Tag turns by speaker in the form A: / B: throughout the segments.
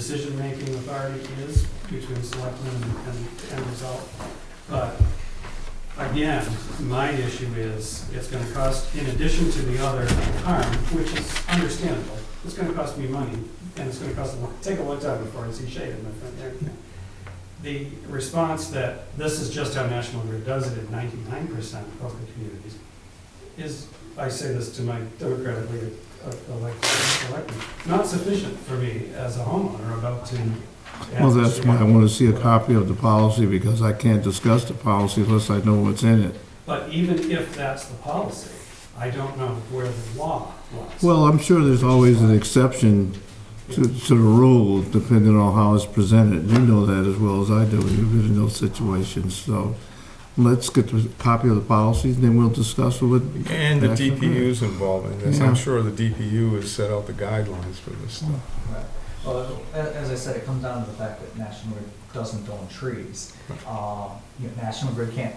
A: decision-making authority is between selectmen and- and end result. But again, my issue is, it's gonna cost, in addition to the other harm, which is understandable, it's gonna cost me money, and it's gonna cost, a lot- take a long time before I see shade in my front yard. The response that this is just how National Grid does it in ninety-nine percent of the communities is, I say this to my democratically elected, elected, not sufficient for me as a homeowner about to.
B: Well, that's why I want to see a copy of the policy, because I can't discuss the policy unless I know what's in it.
A: But even if that's the policy, I don't know where the law lies.
B: Well, I'm sure there's always an exception to, to the rule, depending on how it's presented. You know that as well as I do, you've been in those situations, so let's get the copy of the policies, then we'll discuss what,
C: And the
B: That's okay.
C: DPU's involved in this. I'm
B: Yeah.
C: sure the DPU has set out the guidelines for this stuff.
D: Right. Well, a- as I said, it comes down to the fact that National Grid doesn't own trees. Uh, you know, National Grid can't,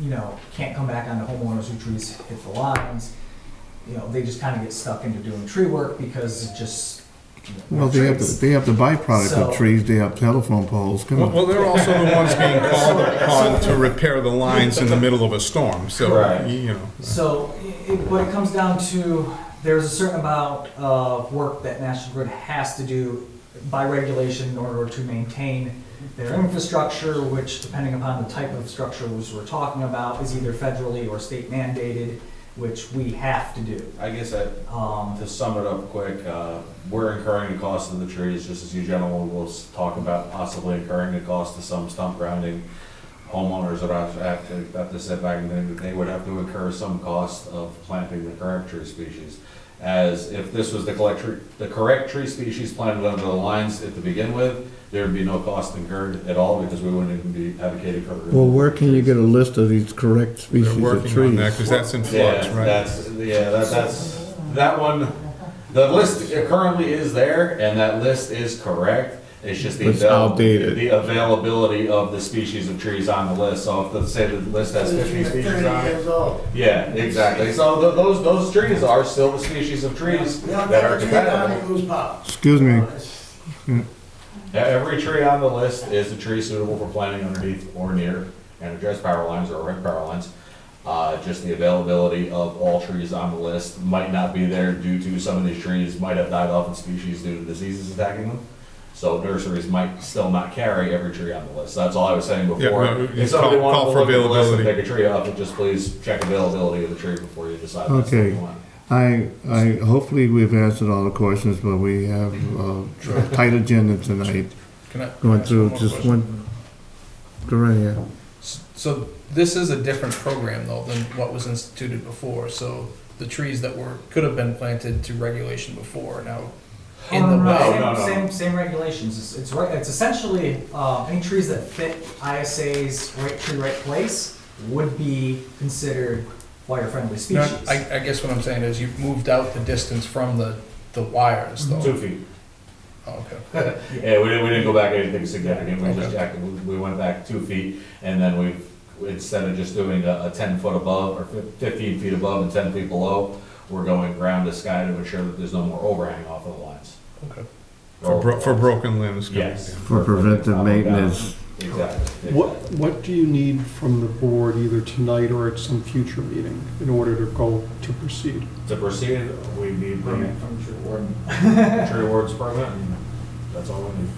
D: you know, can't come back on the homeowners whose trees hit the lines. You know, they just kind of get stuck into doing tree work because it just. you know,
B: well, they have, the-
D: trees.
B: they have the byproduct of
D: So-
B: trees, they have telephone poles, come
C: Well,
B: on.
C: well, they're also the ones being called upon to repair the lines in the middle of a storm, so,
D: Right.
C: you know.
D: So, i- it, but it comes down to, there's a certain amount of work that National Grid has to do by regulation in order to maintain their infrastructure, which depending upon the type of structures we're talking about, is either federally or state mandated, which we have to do.
E: I guess I,
D: Um,
E: to sum it up quick, uh, we're incurring the cost of the trees, just as you gentlemen will s- talk about possibly incurring the cost of some stump grounding. Homeowners that have have to, have to sit back and then they would have to incur some cost of planting the correct tree species. As if this was the collect, tree- the correct tree species planted under the lines at the begin with, there'd be no cost incurred at all because we wouldn't even be advocating for.
B: Well, where can you get a list of these correct
C: They're
B: species of
C: working on that,
B: trees?
C: because that's in flux,
E: Yeah,
C: right?
E: that's, yeah, that, that's, that one, the list currently is there, and that list is correct. It's just the.
B: It's
E: avail-
B: outdated.
E: The availability of the species of trees on the list, so if, the say the list has fifty species on it. Yeah, exactly, so tho- those, those trees are still the species of trees that are compatible.
B: Excuse me,
E: E- Every tree on the list is a tree suitable for planting underneath or near and address power lines or erect power lines. Uh, just the availability of all trees on the list might not be there due to some of these trees might have died off in species due to diseases attacking them. So nurseries might still not carry every tree on the list. That's all I was saying
C: Yeah,
E: before.
C: no, you
E: If somebody
C: call-
E: wanted
C: call
E: to
C: for
E: look at the list and
C: availability.
E: pick a tree up, just please check availability of the tree before you decide that's what
B: Okay.
E: you want.
B: I, I, hopefully we've answered all the questions, but we have uh, a tight agenda tonight,
F: Can I?
B: going
F: can I ask
B: through
F: more
B: just
F: question?
B: one, go right ahead.
F: S- So this is a different program though than what was instituted before, so the trees that were, could have been planted to regulation before are now in the
D: no, no,
F: way.
E: No, no, no.
D: Same, same, same regulations, it's, it's right, it's essentially, uh, any trees that fit ISA's right tree, right place would be considered fire-friendly
F: No,
D: species.
F: I, I guess what I'm saying is you've moved out the distance from the, the wires
E: Two
F: though.
E: feet.
F: Oh, Okay.
E: Yeah, we didn't, we didn't go back anything significant, we just
F: Okay.
E: jacked, we we went back two feet, and then we, instead of just doing a, a ten foot above, or fif- fifteen feet above and ten feet below, we're going ground to sky to ensure that there's no more overhang off of the lines.
F: Okay.
C: For bro- for broken limbs coming
E: Yes.
C: down.
B: For preventive maintenance.
E: Exactly.
G: What, what do you need from the board either tonight or at some future meeting in order to go to proceed?
E: To proceed, we need the
D: From tree warden.
E: tree wards permit, and that's all we need.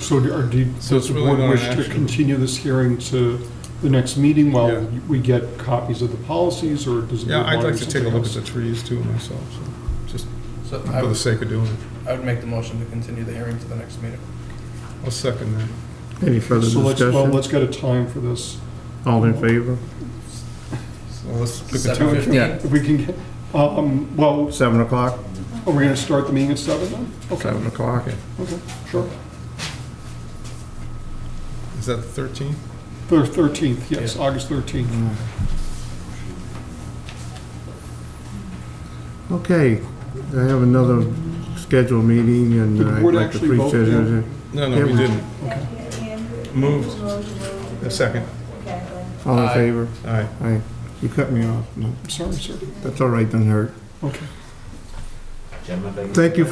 G: So do- or do,
C: So
G: does
C: it's
G: the
C: really
G: board
C: not an
G: wish to
C: action.
G: continue this hearing to the next meeting
C: Yeah.
G: while we get copies of the policies, or does the
C: Yeah,
G: board
C: I'd
G: want
C: like
G: to
C: to
G: do
C: take a
G: something
C: look at
G: else?
C: the trees too myself, so, just
F: So I
C: for the
F: would,
C: sake of doing it.
F: I would make the motion to continue the hearing to the next meeting.
C: I'll second that.
B: Any further
G: So let's, well,
B: discussion?
G: let's get a time for this.
B: All in favor?
C: So let's pick a
F: Seven
C: time.
F: fifteen?
G: If we can, get um, well,
B: Seven o'clock?
G: are we gonna start the meeting at seven then?
B: Seven o'clock.
G: Okay, sure.
C: Is that the thirteenth?
G: The thirteenth, yes, August thirteenth.
B: Okay, I have another scheduled meeting and
G: Did the
B: I'd
G: board
B: like to
G: actually vote
B: appreciate it.
C: No,
B: Yeah,
C: no, we
B: we-
C: didn't.
H: Moved.
C: Moved. A second.
B: All in
F: Aye.
B: favor?
C: All right.
B: Aye. You cut me off. No,
G: Sorry, sir.
B: that's all right, doesn't hurt.
G: Okay.
E: Gentlemen,
B: Thank you